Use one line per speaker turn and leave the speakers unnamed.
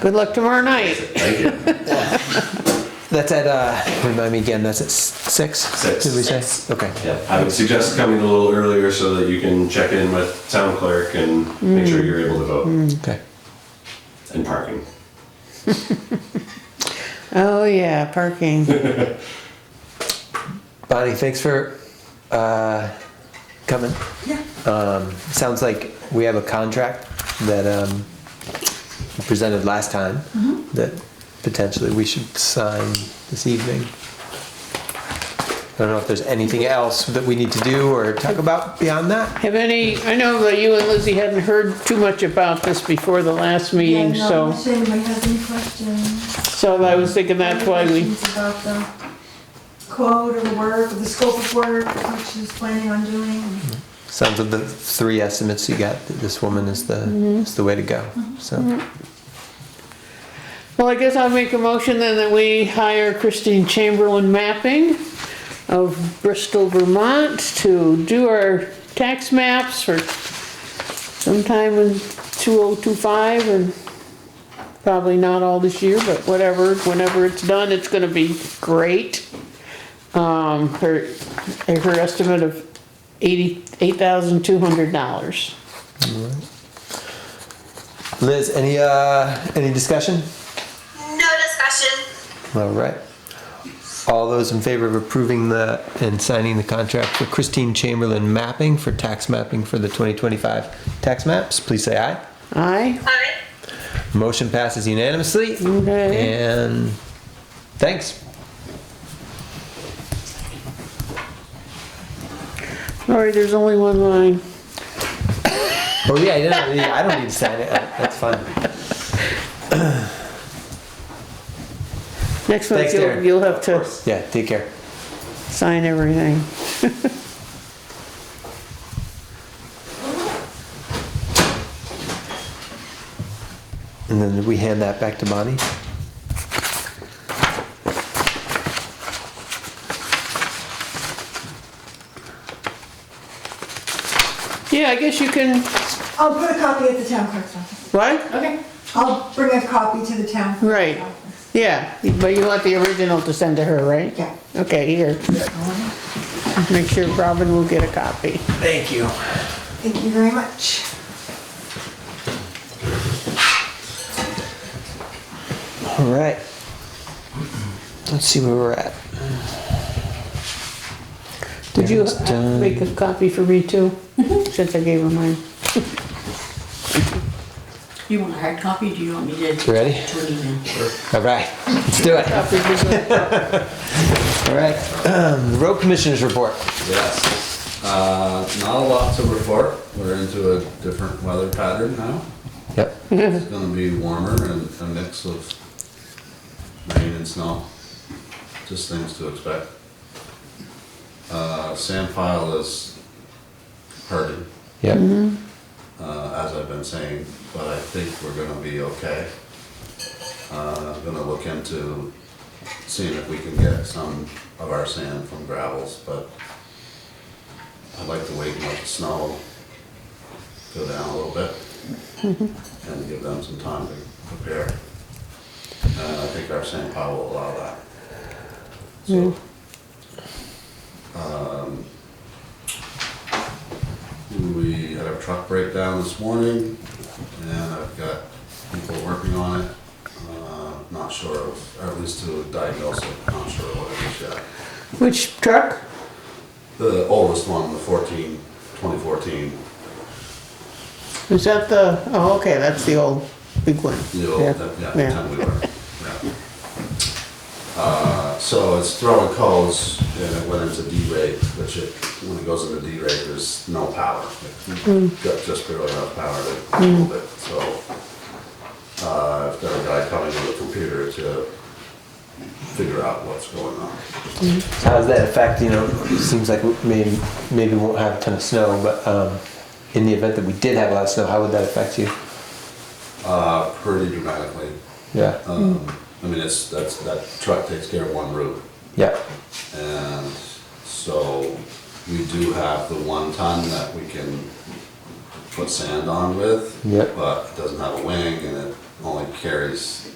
Good luck tomorrow night.
Thank you.
That's at, uh, remind me again, that's at s- six?
Six.
Did we say?
Six.
Okay.
Yeah, I would suggest coming a little earlier so that you can check in with town clerk and make sure you're able to vote
Okay.
and parking.
Oh, yeah, parking.
Bonnie, thanks for, uh, coming.
Yeah.
Um, sounds like we have a contract that, um, we presented last time
Mm-hmm.
that potentially we should sign this evening. I don't know if there's anything else that we need to do or talk about beyond that.
Have any, I know that you and Lizzie hadn't heard too much about this before the last meeting,
Yeah, no,
so,
If anybody has any questions.
so I was thinking that's why
any
we,
questions About the quote or the work, or the scope of work, what she's planning on doing.
Sounds of the three estimates you got, that this woman is the,
Mm-hmm.
is the way to go, so.
well, I guess I'll make a motion then that we hire Christine Chamberlain Mapping of Bristol, Vermont to do our tax maps for sometime in 2025 and probably not all this year, but whatever, whenever it's done, it's gonna be great. Um, her, her estimate of eighty, eight thousand two hundred dollars.
Liz, any uh, any discussion?
No discussion.
All right. All those in favor of approving the and signing the contract for Christine Chamberlain mapping for tax mapping for the 2025 tax maps, please say aye.
Aye?
Aye.
Motion passes unanimously.
Okay.
And thanks.
Sorry, there's only one line.
Oh yeah, I don't need, I don't need to sign it. Uh, That's fine.
Next month,
Thanks,
you'll,
Darren.
you'll have to
Yeah, take care.
sign everything.
And then we hand that back to Bonnie.
Yeah, I guess you can,
I'll put a copy at the town clerk's office.
what?
Okay. I'll bring a copy to the town. clerk's
Right.
office.
Yeah, but you want the original to send to her, right?
Yeah.
Okay, here, make sure Robin will get a copy.
Thank you.
Thank you very much.
All right. Let's see where we're at.
Did you
Darren's done.
make a copy for me too? Since I gave her mine.
You want a hard copy, do you want me to?
Ready?
To an email?
All right, let's do it.
Copy for me.
All right, the Um, road commissioners report.
Yes. Uh, Not a lot to report. We're into a different weather pattern now.
Yep.
It's gonna be warmer and a mix of rain and snow. Just things to expect. Uh, Sand pile is hurting,
Yep.
uh, as I've been saying, but I think we're gonna be okay. Uh, I'm Gonna look into seeing if we can get some of our sand from gravels, but I'd like to wait and let the snow go down a little bit and give them some time to prepare. And I think our sand pile will allow that. So, We had a truck breakdown this morning, and I've got people working on it. Uh, Not sure, of- or at least to diagnose it, not sure what it is yet.
Which truck?
The oldest one, the 14, 2014,
Is that the, oh, okay, that's the old big one.
the old,
Yeah,
yeah, the
yeah.
time we were. yeah. Uh, So it's throwing codes, and it went into D-rate, which it, when it goes into D-rate, there's no power.
Mm.
It Got just barely enough power to move it, so. uh, I've got a guy coming with a computer to figure out what's going on.
How does that affect, you know, it seems like maybe, maybe we won't have a ton of snow, but um, in the event that we did have a lot of snow, how would that affect you?
Uh, Pretty dramatically.
Mm.
Yeah,
Um, I mean, it's, that's, that truck takes care of one route.
yeah,
And so we do have the one ton that we can put sand on with.
Yep.
But it doesn't have a wing and it only carries